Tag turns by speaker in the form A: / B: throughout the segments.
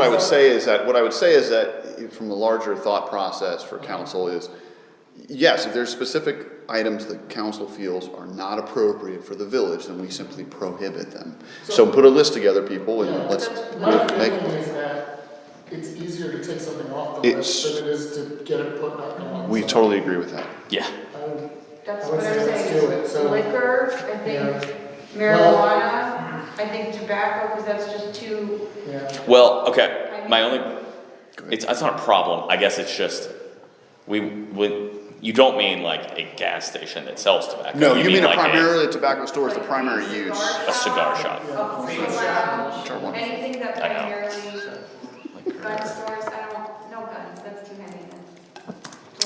A: What I would say is that, what I would say is that, eh, from the larger thought process for council is, yes, if there's specific items that council feels are not appropriate for the village, then we simply prohibit them. So put a list together, people, and let's
B: My
A: make,
B: feeling is that it's easier to take something off the
A: It's-
B: list than it is to get it put back on.
A: we
B: So
A: totally agree with that.
C: Yeah.
B: I would-
D: That's
B: I
D: what
B: would
D: I'm
B: say let's
D: saying,
B: do it,
D: is
B: so-
D: liquor, I
B: Yeah.
D: think marijuana, I think tobacco, because that's just too,
B: Yeah,
C: Well, okay. My only, it's that's not a problem. I guess it's just we would. You don't mean like a gas station that sells tobacco.
A: No, you mean a
C: like
A: primarily a tobacco store is the
D: Like
A: primary
D: a
A: use.
C: a cigar shop.
D: A free
A: Sure,
D: lounge,
A: wonderful.
D: anything that
C: I know.
D: primarily, gun stores, I don't, no guns, that's too many.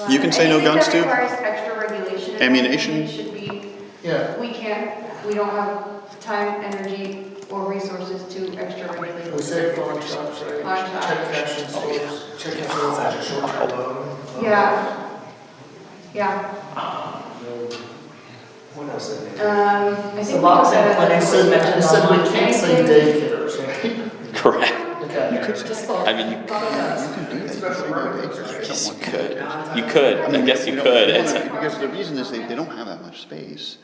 D: then.
A: You can say no guns, too.
D: Anything that requires extra regulation. and
A: Ammunition.
D: everything Should be,
B: yeah,
D: we can't, we don't have time, energy, or resources to extra regulate.
B: we say pawn shops, right?
D: Pawn shops. Oh,
B: Check cashing stores, check cashing stores, like short-term loan.
D: Yeah, yeah,
E: What else is it?
D: um, I
F: So
D: think we
F: lots of
D: said
B: You
F: clinics.
B: said, you said we can't say daycares, right?
C: Correct.
B: Okay.
F: Just
C: I mean, you,
A: Yes,
C: you could. You could. I guess you could. It's,
A: Because the reason is they, they don't have that much space,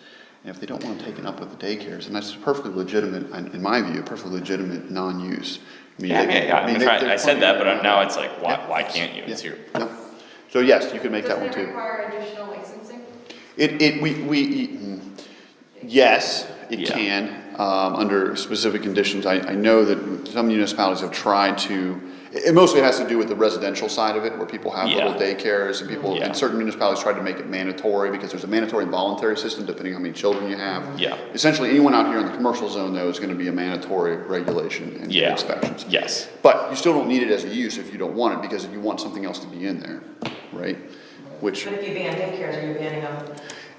A: and if they don't wanna take it up with the daycares, and that's perfectly legitimate, in in my view, perfectly legitimate non-use. I mean,
C: yeah,
A: they can-
C: yeah, yeah. I'm
A: mean, they-
C: trying,
A: they're
C: I said that, but
A: plenty-
C: I'm- now it's like, why,
A: Yeah.
C: why can't you?
A: Yeah.
C: It's your.
A: No. So yes, you can make that
D: Doesn't
A: one
D: it
A: too.
D: require additional licensing?
A: It, it, we, we, mm, yes, it
C: Yeah.
A: can, um, under specific conditions. I, I know that some municipalities have tried to, it it mostly has to do with the residential side of it, where people have little
C: Yeah.
A: daycares and people,
C: Yeah.
A: and certain municipalities tried to make it mandatory, because there's a mandatory and voluntary system depending how many children you have.
C: Yeah.
A: Essentially, anyone out here in the commercial zone, though, is gonna be a mandatory regulation and
C: Yeah.
A: inspections.
C: Yes.
A: But you still don't need it as a use if you don't want it, because you want something else to be in there, right? Which.
F: But if you ban daycares, are you banning them?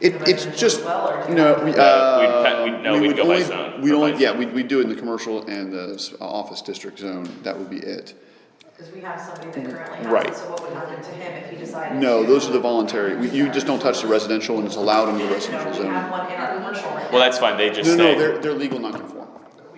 A: It,
F: in
A: it's
F: residential
A: just,
F: as well, or do you-
A: no, we,
C: we'd
A: uh.
C: pa- we'd- no,
A: we
C: we'd
A: would
C: go by
A: only-
C: zone,
A: We'd
C: or
A: only,
C: by
A: yeah,
C: zone.
A: we'd, we'd do it in the commercial and the s- office district zone, that would be it.
F: Because we have somebody that currently has
A: Right.
F: it, so what would happen to him if he decided?
A: No,
F: to-
A: those are the voluntary, We- you just don't touch the residential and it's allowed in the residential
F: No, we have
A: zone.
F: one in our commercial. right
C: Well,
F: now.
C: that's fine. They just
A: No, no,
C: say.
A: they're, they're legal non-conform,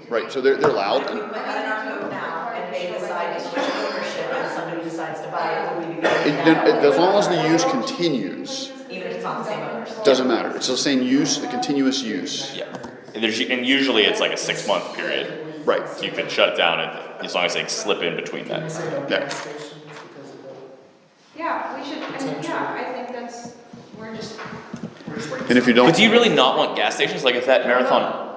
A: right, so they're, they're allowed,
F: If we
A: and
F: put that in our code now, and they decide to switch ownership, and somebody decides to buy it, would we be banning
A: it, then,
F: that?
A: as long as the use continues,
F: Even if it's not the same owners?
A: doesn't matter, it's the same use, the continuous use,
C: Yeah. And there's and usually it's like a six month period.
A: right,
C: You could shut it down and, as long as they slip in between
B: We
C: that.
B: say no
A: Yeah.
B: gas stations because of the,
D: Yeah, we should, I mean, yeah, I think that's, we're just,
B: we're just waiting.
A: and if you don't.
C: But do you really not want gas stations? Like if that marathon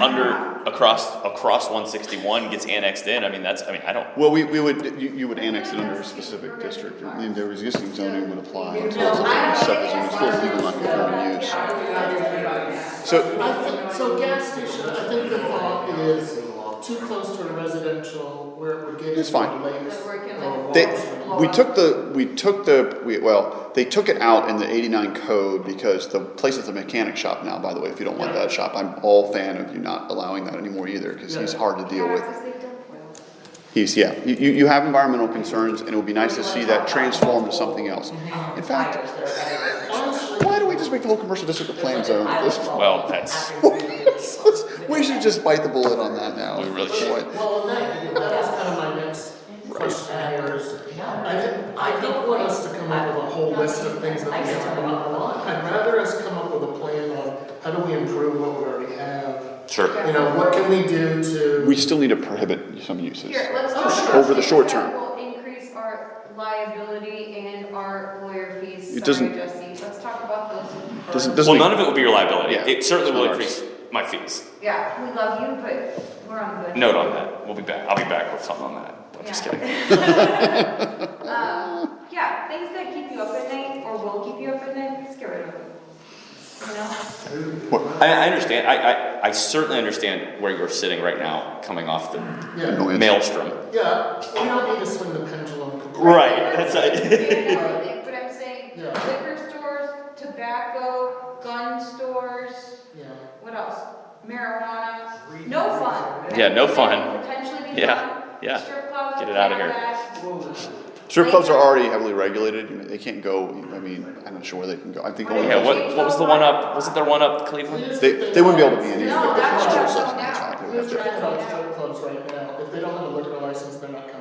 C: under across across 161 gets annexed in, I mean that's I mean I don't.
A: Well, we, we would, you, you would annex it under a specific district, I mean, their existing zoning would apply until it's a subdivision, it's still legal non-conforming use. So,
B: I think, so gas station, I think the thought is too close to a residential where it would get
A: It's
B: into
A: fine.
B: lakes
D: Like,
B: or
D: where it can,
B: walls.
D: like,
A: they,
B: or-
A: we took the, we took the, we, well, they took it out in the eighty-nine code because the place is a mechanic shop now, by the way, if you don't want that shop, I'm all fan of you not allowing that anymore either, cause he's hard to deal with.
D: because they dump oil.
A: He's, yeah, you, you you have environmental concerns, and it would be nice to see that transformed to something else. In fact, why don't we just make the whole commercial district a planned zone at this point?
C: Well, that's
A: We should just bite the bullet on that now.
C: We really
A: That's
C: should.
A: why-
B: Well, and that, that was kind of my next question here is, I didn't, I don't want us to come up with a whole list of things that we have to want. I'd rather us come up with a plan on how do we improve what we already have?
C: sure.
B: You know, what can we do to?
A: We still need to prohibit some uses.
D: Here, let's
B: Oh,
D: talk
B: sure.
D: about
A: Over the
D: things
A: short
D: that
A: term.
D: Will increase our liability and our lawyer
A: It
D: fees, sorry,
A: doesn't-
D: Jesse, let's talk about those. first.
A: Doesn't,
C: Well,
A: doesn't,
C: none
A: make-
C: of it will be your liability.
A: Yeah,
C: it certainly
A: it's
C: will
A: not
C: increase my fees.
D: Yeah, we love you, but we're on good.
C: Note on that. We'll be back. I'll be back with something on that. I'm just
D: Yeah.
C: kidding.
D: Um, yeah, things that keep you up at night, or will keep you up at night, just get rid of them. You know?
C: I, I understand. I, I, I certainly understand where you're sitting right now, coming off the
B: Yeah,
A: Annoyance.
C: maelstrom.
B: yeah, we don't need to swing the pendulum completely.
C: Right. That's it.
D: Everything, But I'm saying
B: Yeah.
D: liquor stores, tobacco, gun stores,
B: Yeah,
D: what else? Marijuana, no fun.
C: Yeah, no fun.
D: Potentially be
C: Yeah,
D: fun.
C: yeah.
D: Strip clubs.
C: Get it outta here.
D: here.
A: strip clubs are already heavily regulated, You know, they can't go, I mean, I'm not sure where they can go, I think only.
C: Yeah. What, what was the one up? Wasn't there one up Cleveland?
A: They, they wouldn't be able to be in these.
D: No, that's
A: commercial zones.
D: what I'm talking about.
A: They would
B: There's
A: have to-
B: traffic on strip clubs right now, if they don't have a liquor license, they're not